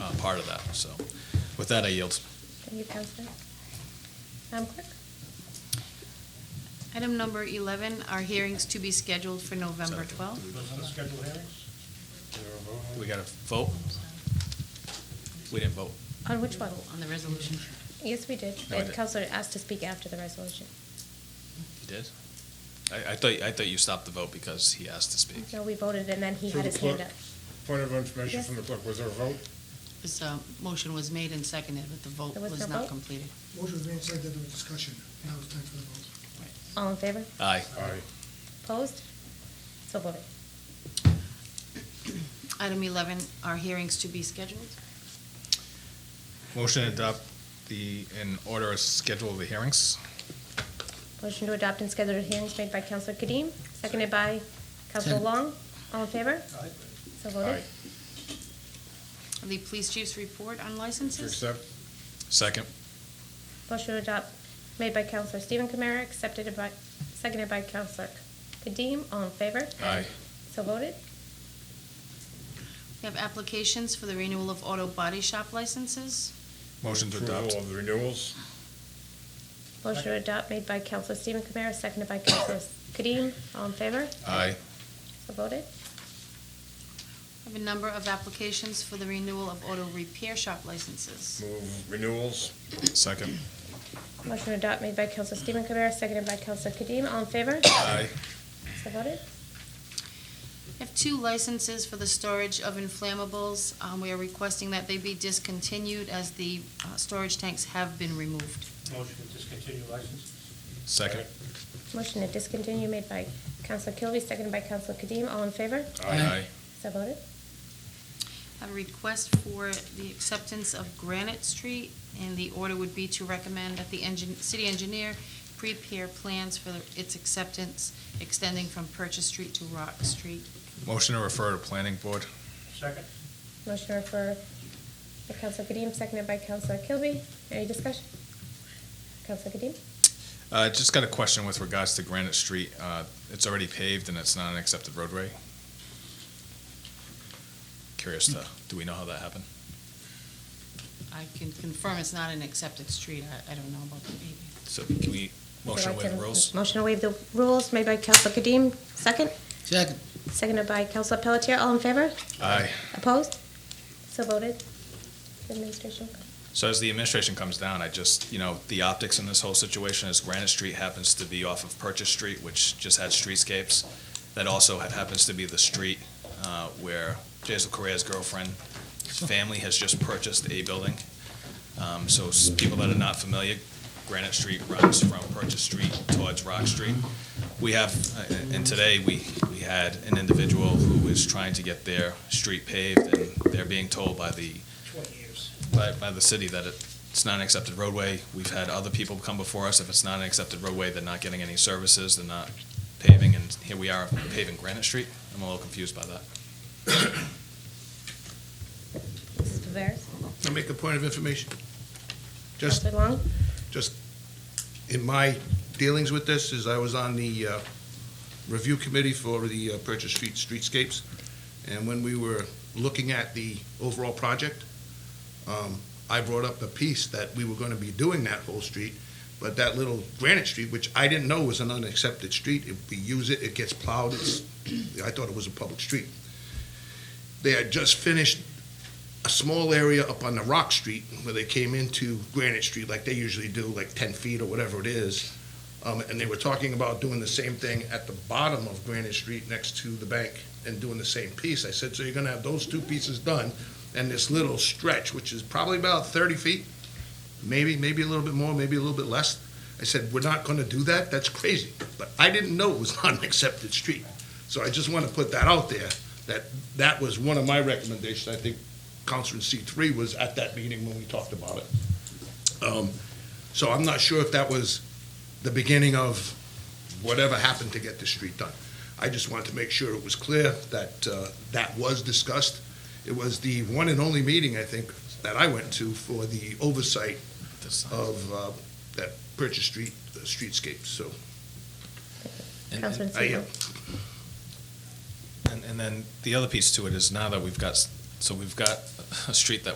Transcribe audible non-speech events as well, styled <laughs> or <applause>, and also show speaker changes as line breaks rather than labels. uh, part of that. So with that, I yield.
Thank you, Counselor. Madam Clerk?
Item number 11 are hearings to be scheduled for
Sorry.
November 12th.
Let's schedule hearings. Is there a vote on
We
it?
got to vote? We didn't vote.
On which one?
On the resolution.
Yes, we did.
No, Oh, I
And
didn't.
Counselor asked to speak after the resolution.
You did? I, I thought, I thought you stopped the vote because he asked to speak.
No, we voted, and then he
Through
had
the
his hand
clerk.
up.
Point of information
Yes.
from the clerk, was there a vote?
This uh, motion was made and seconded, but the vote
There was
was
no
not
vote?
completed.
Motion was made, seconded, there was discussion. Now it's time for the vote.
All in favor?
Aye.
Aye.
Opposed? So voted.
Item 11 are hearings to be scheduled.
Motion to adopt the, in order of schedule of the hearings.
Motion to adopt and schedule hearings made by Counselor Kadim, seconded by Counselor Long. All in favor? Aye. So voted.
The police chief's report on
To
licenses.
accept?
Second.
Motion to adopt made by Counselor Stephen Kamara, accepted by, seconded by Counselor Kadim. All in favor?
Aye.
So voted.
We have applications for the renewal of auto body shop licenses.
Motion to adopt.
Approval of the renewals?
Motion to adopt made by Counselor Stephen Kamara, seconded by Counselor Kadim. All in favor?
Aye.
So voted.
We have a number of applications for the renewal of auto repair shop licenses.
Move renewals?
Second.
Motion to adopt made by Counselor Stephen Kamara, seconded by Counselor Kadim. All in favor?
Aye.
So voted.
We have two licenses for the storage of inflammables. Um, We are requesting that they be discontinued as the uh, storage tanks have been removed.
Motion to discontinue license?
Second.
Motion to discontinue made by Counselor Kilby, seconded by Counselor Kadim. All in favor?
Aye.
So voted.
Have a request for the acceptance of Granite Street, and the order would be to recommend that the engin, city engineer prepare plans for its acceptance extending from Purchase Street to Rock Street.
Motion to refer to planning board.
Second?
Motion to refer by Counselor Kadim, seconded by Counselor Kilby. Any discussion? Counselor Kadim?
Uh, just got a question with regards to Granite Street. Uh, it's already paved and it's not an accepted roadway. Curious to, do we know how that happened?
I can confirm it's not an accepted street, I, I don't know about the paving.
So can we motion to
Would you like
waive the rules?
Motion to waive the rules made by Counselor Kadim, second,
Second.
seconded by Counselor Pelletier. All in favor?
Aye.
Opposed? So voted. Administration.
So as the administration comes down, I just, you know, the optics in this whole situation is Granite Street happens to be off of Purchase Street, which just had streetscapes. That also ha- happens to be the street uh, where Jason Correa's girlfriend, family has just purchased a building. Um, So s- people that are not familiar, Granite Street runs from Purchase Street towards Rock Street. We have, uh, and today, we, we had an individual who is trying to get their street paved, and they're being told by the
Twenty years.
by, by the city that it- it's not an accepted roadway. We've had other people come before us, if it's not an accepted roadway, they're not getting any services, they're not paving, and here we are paving Granite Street. I'm a little confused by that.
Mrs. Viveras?
I'll make a point of information. Just,
Counselor Long?
just, in my dealings with this, is I was on the uh, review committee for the uh, Purchase Street Streetscapes, and when we were looking at the overall project, um, I brought up a piece that we were going to be doing that whole street, but that little Granite Street, which I didn't know was an unaccepted street, if we use it, it gets plowed, it's, I thought it was a public street. They had just finished a small area up on the Rock Street where they came into Granite Street like they usually do, like 10 feet or whatever it is. Um, and they were talking about doing the same thing at the bottom of Granite Street next to the bank and doing the same piece. I said, so you're going to have those two pieces done and this little stretch, which is probably about 30 feet, maybe, maybe a little bit more, maybe a little bit less. I said, we're not going to do that. That's crazy. But I didn't know it was <laughs> not an accepted street. So I just want to put that out there, that that was one of my recommendations. I think Counselor in C3 was at that meeting when we talked about it. Um, So I'm not sure if that was the beginning of whatever happened to get the street done. I just wanted to make sure it was clear that uh, that was discussed. It was the one and only meeting, I think, that I went to for the oversight
This-
of uh, that Purchase Street, uh, streetscape, so.
and-
Counselor
I, uh,
Stephen?
And, and then the other piece to it is now that we've got, s- so we've got a street that